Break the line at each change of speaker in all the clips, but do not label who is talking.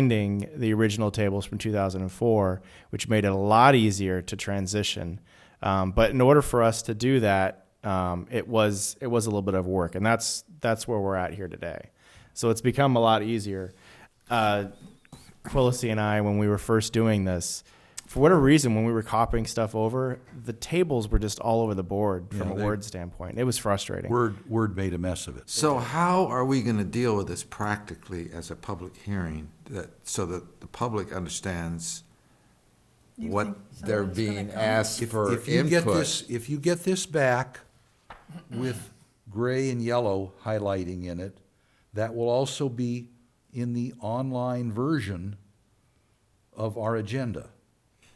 finding the original tables from 2004, which made it a lot easier to transition. Um, but in order for us to do that, um, it was it was a little bit of work, and that's that's where we're at here today. So it's become a lot easier. Uh, Quillisi and I, when we were first doing this, for whatever reason, when we were copying stuff over, the tables were just all over the board from
Yeah,
a
they-
word standpoint. It was frustrating.
Word, Word made a mess of it.
So how are we going to deal with this practically as a public hearing that, so that the public understands
You
what
think
they're
someone's gonna
being
come?
asked
If-
for
If you get
input?
this, if you get this back with gray and yellow highlighting in it, that will also be in the online version of our agenda.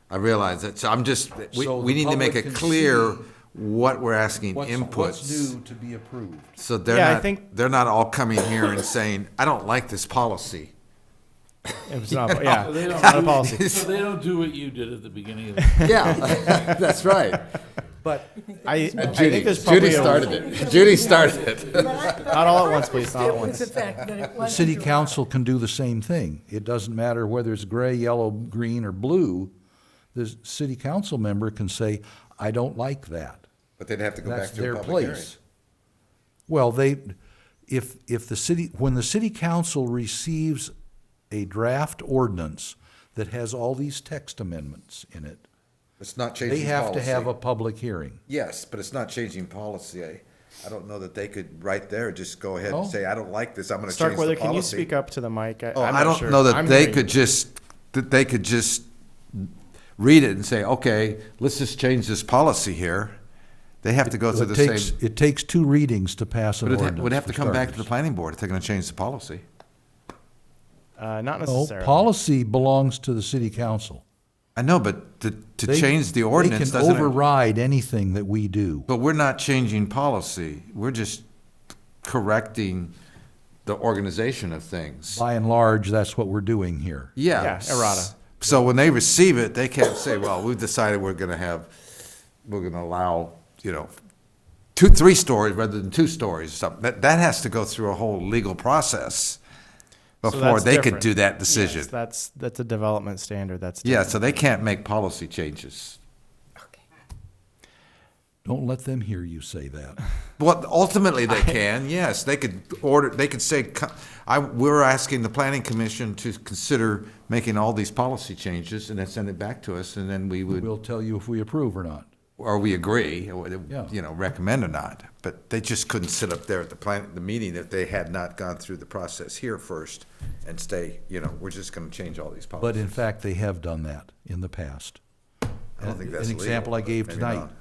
I realize that, so I'm just, we,
So
we
the
need to make
public
it
can
clear
see
what we're asking
What's, what's
inputs.
new to be approved?
So they're
Yeah, I
not,
think-
they're not all coming here and saying, I don't like this policy.
It was not, yeah,
They don't
it's not a
do-
policy.
So they don't do what you did at the beginning of the.
Yeah, that's right.
But
I, I
Judy,
think there's probably
Judy
a-
started it. Judy started it.
Not all at once, please, not at
It was
once.
the fact that it
the
wasn't
city
drawn.
council can do the same thing. It doesn't matter whether it's gray, yellow, green, or blue. The s- city council member can say, I don't like that.
But they'd have to go
That's
back to
their
a public hearing.
place. Well, they, if, if the city, when the city council receives a draft ordinance that has all these text amendments in it,
It's not changing
they
policy.
have to have a public hearing.
Yes, but it's not changing policy. I, I don't know that they could right there just go ahead and
Oh.
say, I don't like this, I'm gonna change the
Starkweather, can you
policy.
speak up to the mic?
Oh,
I'm
I
not
don't
sure.
know that
I'm
they
hearing
could
you.
just that they could just read it and say, okay, let's just change this policy here. They have to go through
It
the
takes,
same.
it takes two readings to pass an
But it ha-
ordinance.
would have to
for
come back to the
starters.
planning board if they're gonna change the policy.
Uh, not
No,
necessarily.
policy belongs to the city council.
I know, but to, to
They-
change the ordinance
They can
doesn't,
override anything that we do.
but we're not changing policy. We're just correcting the organization of things.
By and large, that's what we're doing here.
Yeah.
Yeah, errata.
So when they receive it, they can't say, well, we've decided we're gonna have, we're gonna allow, you know, two, three stories rather than two stories or something. That, that has to go through a whole legal process
So
before
that's
they could
different.
do that
Yes,
decision.
that's that's a development standard. That's
Yeah, so they can't make policy changes.
Don't let them hear you say that.
Well, ultimately they can, yes. They could order, they could say, co- I, we're asking the planning commission to consider making all these policy changes and then send it back to us and then we would.
We'll tell you if we approve or not.
or we agree, or,
Yeah.
you know, recommend or not, but they just couldn't sit up there at the plan, the meeting if they had not gone through the process here first and stay, you know, we're just gonna change all these
But in
policies.
fact, they have done that in the past.
I don't think that's
An example
legal,
I gave
but maybe
tonight.
not.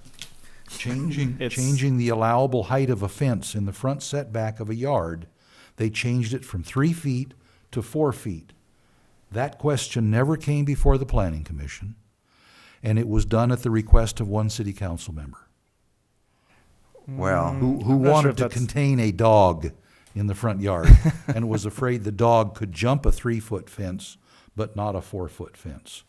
Changing,
It's-
changing the allowable height of a fence in the front setback of a yard, they changed it from three feet to four feet. That question never came before the planning commission, and it was done at the request of one city council member
Well,
who, who
not sure
wanted
if
to
that's-
contain a dog in the front yard and was afraid the dog could jump a three-foot fence, but not a four-foot fence.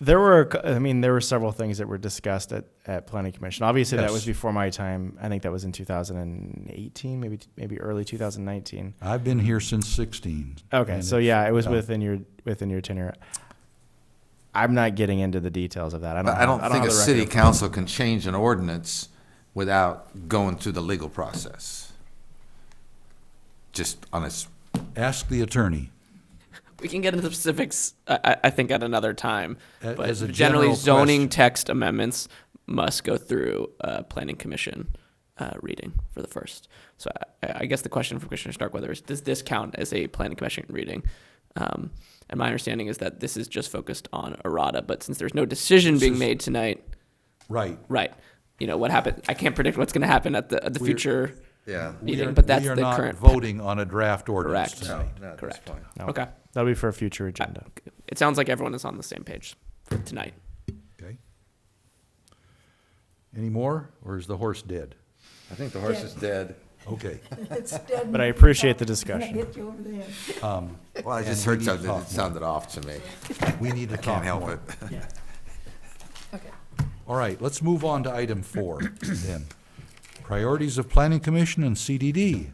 There were, a cou- I mean, there were several things that were discussed at, at planning commission. Obviously, that
Yes.
was before my time. I think that was in 2018, maybe maybe early 2019.
I've been here since sixteen.
Okay,
and
so
it's-
yeah, it was
yeah.
within your within your tenure. I'm not getting into the details of that. I don't.
I
have-
don't think
have
a
the record
city
in front of me.
council can change an ordinance without going through the legal process. Just on its,
Ask the attorney.
We can get into the specifics, I, I- I think, at another time.
A-
But
as a
generally,
general
zoning
question.
text amendments must go through uh, planning commission uh, reading for the first. So I, I guess the question from Commissioner Starkweather is: Does this count as a planning commission reading? Um, and my understanding is that this is just focused on errata. But since there's no decision being made tonight,
Right.
right? You know what happened. I can't predict what's going to happen at the at the
We're-
future.
yeah.
We
Meeting,
are-
but that's
we are
the
not
current-
Voting on a draft ordinance
Correct.
tonight.
No, that's
Correct.
fine.
No.
Okay.
That'll be for a future agenda.
It sounds like everyone is on the same page for tonight.
Okay. Any more, or is the horse dead?
I think the horse is dead.
Okay.
It's dead.
But I appreciate the
Gonna
discussion.
hit you over the head.
Well, I just heard something that sounded off to me.
We need to talk
Can't help
more.
it.
Okay.
All right, let's move on to item four then. Priorities of Planning Commission and CDD.